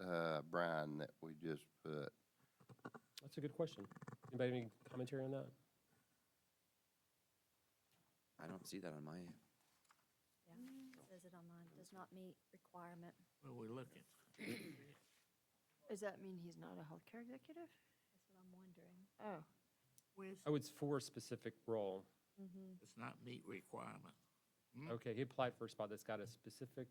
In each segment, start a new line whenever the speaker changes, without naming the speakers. uh, brine that we just put?
That's a good question. Anybody have any commentary on that?
I don't see that on my,
Yeah,
Mm.
it says it online, does not meet requirement.
What are we looking?
Does that mean he's not a healthcare executive?
That's what I'm wondering.
Oh,
Where's,
Oh, it's for a specific role.
it's not meet requirement.
Okay, he applied for a spot that's got a specific,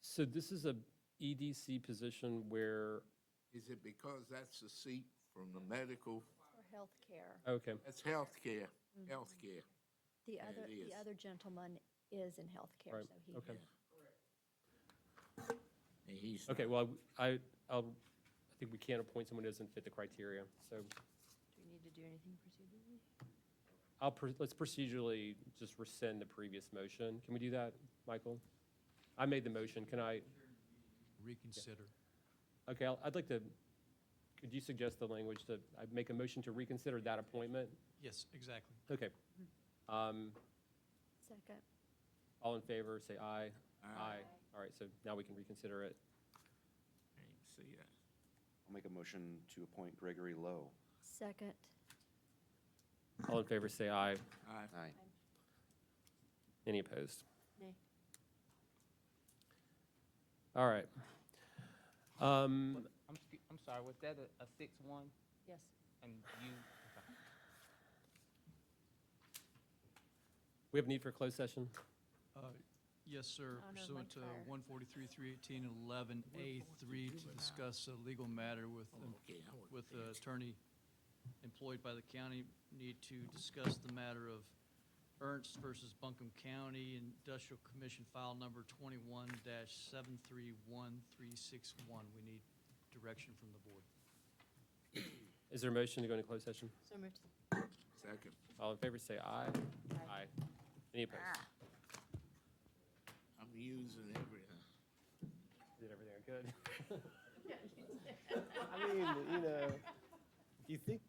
so this is a EDC position where,
Is it because that's a seat from the medical,
For healthcare,
okay,
that's healthcare, healthcare?
the
Yeah, it
other,
is.
the other gentleman is in healthcare,
Right,
so he.
okay.
And he's,
okay, well, I, I'll, I think we can't appoint someone who doesn't fit the criteria, so
do we need to do anything procedurally?
I'll, pr- let's procedurally just rescind the previous motion. Can we do that, Michael? I made the motion, can I,
reconsider.
okay, I'll- I'd like to, could you suggest the language to, I make a motion to reconsider that appointment?
Yes, exactly.
Okay. Um,
Second,
All in favor, say aye.
Aye.
All right, so now we can reconsider it.
I didn't see that.
I'll make a motion to appoint Gregory Lowe.
second,
All in favor, say aye.
Aye.
Aye.
Any opposed?
Nay.
All right. Um,
I'm, sc- I'm sorry, was that a, a six-one?
Yes.
And you, okay.
We have need for a closed session?
Uh, Yes,
Oh, no,
sir, pursuant to
Mike Fryer.
143, 318, and 11A3 to discuss a legal matter with,
Oh, okay, I wasn't
with
paying
the attorney employed by the county, need to discuss the matter of Ernst versus Buncombe County Industrial Commission File Number 21-731361. We need direction from the board.
Is there a motion to go into closed session?
So moved.
Second,
All in favor, say aye.
Aye.
Any opposed?
I'm using everything.
Did everything I could.
Yeah, you did.
I mean, you know, you think